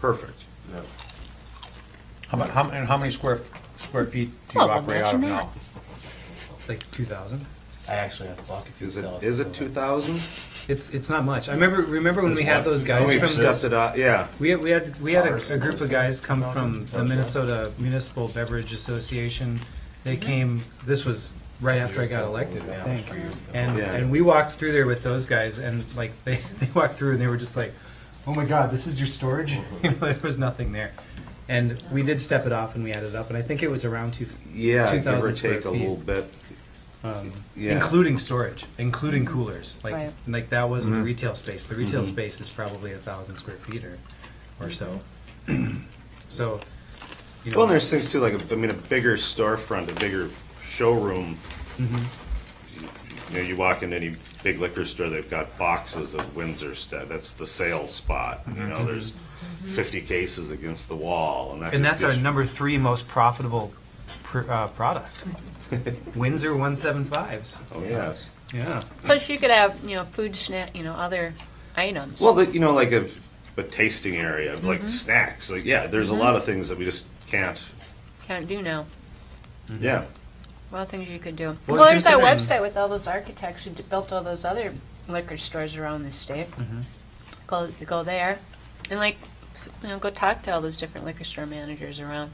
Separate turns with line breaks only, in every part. perfect.
How about, how, and how many square, square feet do you
Oh,
Well, we'll
operate out of
mention
now?
It's like two thousand. I actually have to block if you
Is it,
sell us.
is it two thousand?
It's it's not much. I remember remember when we had those guys
We've
from
stepped it up, yeah.
we had, we had we had a, a group of guys come from the Minnesota Municipal Beverage Association. They came. This was right after I got elected, I think. And
Yeah.
and we walked through there with those guys, and like they they walked through and they were just like, "Oh my God, this is your storage." you know, there was nothing there. And we did step it off, and we added up, and I think it was around two.
Yeah, give or
2,000 square
take a
feet.
little bit.
um,
Yeah.
including storage, including coolers. Like
Right.
like that was
Mm-hmm.
the retail space. The retail space is probably a thousand square feet or, or so. so, you know,
Well, and there's things too, like, I mean, a bigger storefront, a bigger showroom.
Mm-hmm.
You know, you walk into any big liquor store, they've got boxes of Windsor stuff. That's the sale spot. You know, there's fifty cases against the wall and that
Mm-hmm. and
just
that's our
gives-
number three most profitable pr- uh, product. Windsor one seven fives.
Oh, yes.
Yeah.
Plus, you could have, you know, food snack, you know, other items.
Well, the, you know, like a, a tasting area, like
Mm-hmm.
snacks. Like, yeah, there's a lot of things that we just can't.
Can't do now.
Yeah.
A lot of things you could do.
Well,
Well, there's that website
considering-
with all those architects who d- built all those other liquor stores around the state.
Mm-hmm.
Go, go there, and like, s- you know, go talk to all those different liquor store managers around.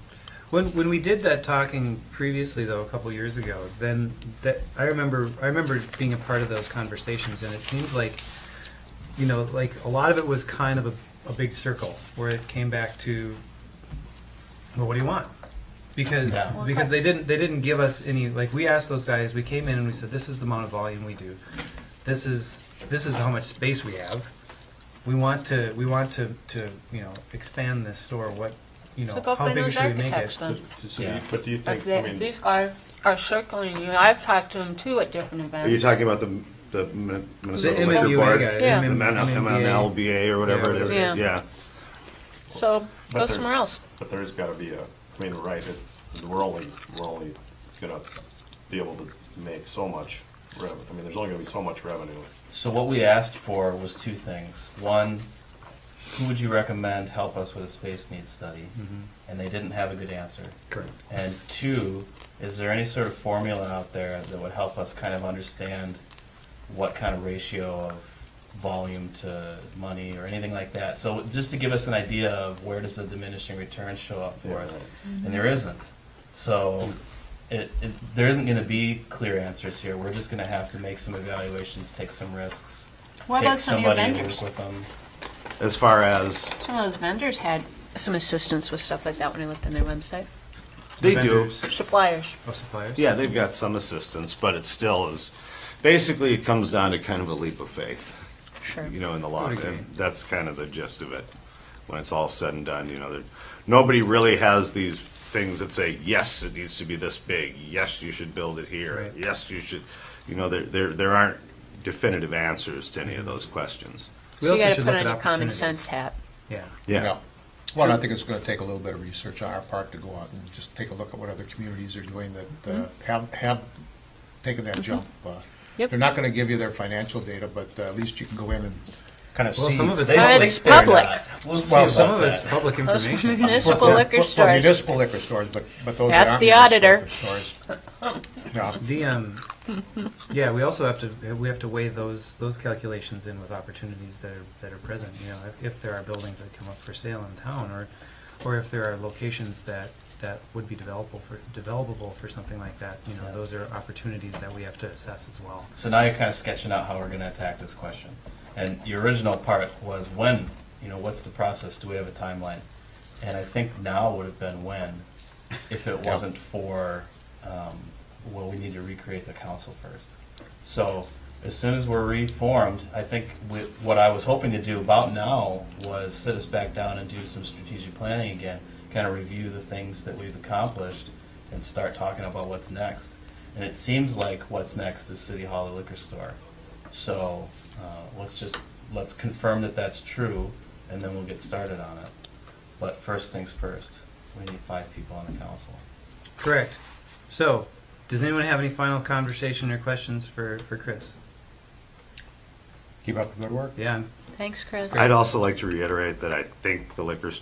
When, when we did that talking previously, though, a couple years ago, then that I remember I remember being a part of those conversations, and it seemed like, you know, like a lot of it was kind of a, a big circle where it came back to, well, what do you want? Because because they didn't they didn't give us any like we asked those guys we came in and we said this is the amount of volume we do, this is this is how much space we have. We want to we want to, to you know expand this store. What you know
So go
how
find
big
those
should we make
architects
it?
then.
So do you- But do you
But
think, I
they,
mean,
these guys are circling you. I've talked to them too at different events.
Are you talking about the the Min-
The
Minnesota Liquor
MMUA
Board?
guy.
Yeah.
The
M-
Men-
MMUA.
MMLBA or whatever it is.
Yeah.
Yeah.
So go
But there's-
somewhere else.
but there's gotta be a, I mean, right, it's, we're only, we're only gonna be able to make so much revenue. I mean, there's only gonna be so much revenue.
So what we asked for was two things. One, who would you recommend help us with a space needs study? And they didn't have a good answer.
Correct.
And two, is there any sort of formula out there that would help us kind of understand what kind of ratio of volume to money or anything like that? So just to give us an idea of where does the diminishing return show up for us? And there isn't. So it, it, there isn't going to be clear answers here. We're just going to have to make some evaluations, take some risks.
What
pick
about some of your
somebody and
vendors?
work with them.
As far as
Some of those vendors had some assistance with stuff like that when I looked on their website.
they do,
vendors.
Suppliers.
Of suppliers.
yeah, they've got some assistance, but it still is. Basically, it comes down to kind of a leap of faith,
Sure.
you know, in the long
would agree.
term. That's kind of the gist of it. When it's all said and done, you know, there, nobody really has these things that say, yes, it needs to be this big. Yes, you should build it here.
Right.
Yes, you should. You know, there there there aren't definitive answers to any of those questions.
We
so you
also
got to
should
put on
look at
your common
opportunities.
sense hat.
Yeah.
Yeah.
Well, and I think it's gonna take a little bit of research on our part to go out and just take a look at what other communities are doing that uh, have, have taken that jump. Uh,
Mm-hmm. Yep.
They're not gonna give you their financial data, but uh, at least you can go in and kind of see.
Well, some of it's
They don't
Uh,
public.
think
it's
they're
public.
not. We'll see
Well,
about
Some of
that.
it's public
Those
information.
For-
municipal
for-
liquor
for
stores.
municipal liquor stores, but, but those that
That's
aren't
the
municipal
auditor.
liquor stores. Yeah.
The um, yeah, we also have to we have to weigh those those calculations in with opportunities that are that are present. You know, if, if there are buildings that come up for sale in town, or or if there are locations that that would be developable for developable for something like that. You know,
Yeah.
those are opportunities that we have to assess as well.
So now you're kind of sketching out how we're going to attack this question. And your original part was when, you know, what's the process? Do we have a timeline? And I think now would have been when, if it wasn't for, um, well, we need to recreate the council first. So as soon as we're reformed, I think we, what I was hoping to do about now was sit us back down and do some strategic planning again, kind of review the things that we've accomplished and start talking about what's next. And it seems like what's next is City Hall the liquor store. So uh, let's just let's confirm that that's true, and then we'll get started on it. But first things first, we need five people on the council.
Correct. So, does anyone have any final conversation or questions for for Chris?
Keep up the good work.
Yeah, I'm
Thanks, Chris.
I'd also like to reiterate that I think the liquor store